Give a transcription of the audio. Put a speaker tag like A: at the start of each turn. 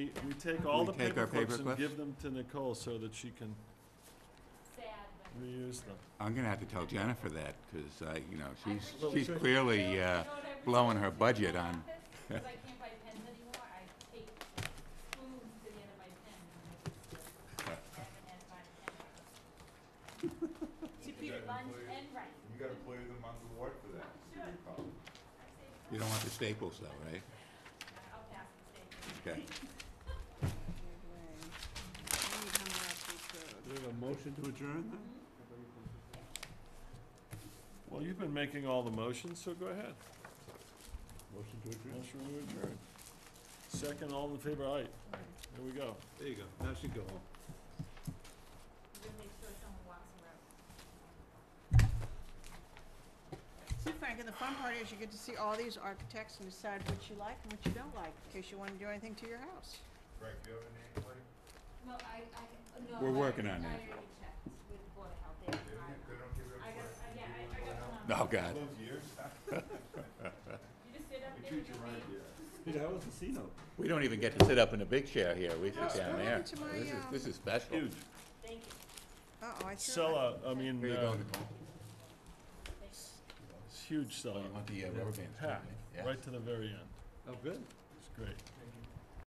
A: we, we take all
B: We
A: the
B: take our
A: paperclips and
B: paperclips?
A: give them to Nicole so that she can
C: sad, but.
A: reuse them.
B: I'm gonna have to tell Jennifer that, because I, you know, she's,
A: Well,
B: she's
A: we-
B: clearly,
C: You know-
B: uh,
C: you know what I really
B: blowing her
C: do in
B: budget
C: my
B: on-
C: office? 'Cause I can't buy pens anymore, I take spoons to the end of my pen. and I haven't had my pen. To be lunch and right.
D: You gotta play them on the water for that.
C: I say,
B: you don't want the staples though, right?
C: I'll pass the state.
B: Okay.
E: Road.
B: we have a motion to adjourn then?
A: Well, you've been making all the motions, so go ahead.
B: Motion to adjourn?
A: Motion to adjourn. Second, all in favor, aye. There we go.
B: There you go, now she go home.
C: We're gonna make sure someone walks around.
E: See, Frank, and the fun part is you get to see all these architects and decide what you like and what you don't like, in case you wanna do anything to your house.
D: Frank, you have a name, buddy?
C: No, I, I, no.
B: We're
C: I
B: working
C: already-
B: on
C: I
B: that.
C: already checked with Board of Health, they have
D: They don't
C: time.
D: give- they don't give
C: I got,
D: up.
C: I- yeah, I, I got one on.
B: Oh, God.
D: Twelve years?
C: You just sit up
D: They treat
C: there.
D: you
C: and you
D: right,
C: wait.
D: yeah.
B: We don't even get to sit up in a big chair here, we
E: Oh,
B: sit down
E: what
B: there.
E: happened to my,
B: This is,
E: um,
B: this is special.
A: Huge.
C: Thank you.
E: Uh-oh, I threw it.
A: Sellout, I mean,
B: Here you go,
A: uh,
B: Nicole.
A: it's huge
B: Oh, you
A: sellout.
B: want the uh, rubber bands? don't
A: Packed,
B: you? Yeah.
A: right to the very end.
F: Oh, good.
A: It's great.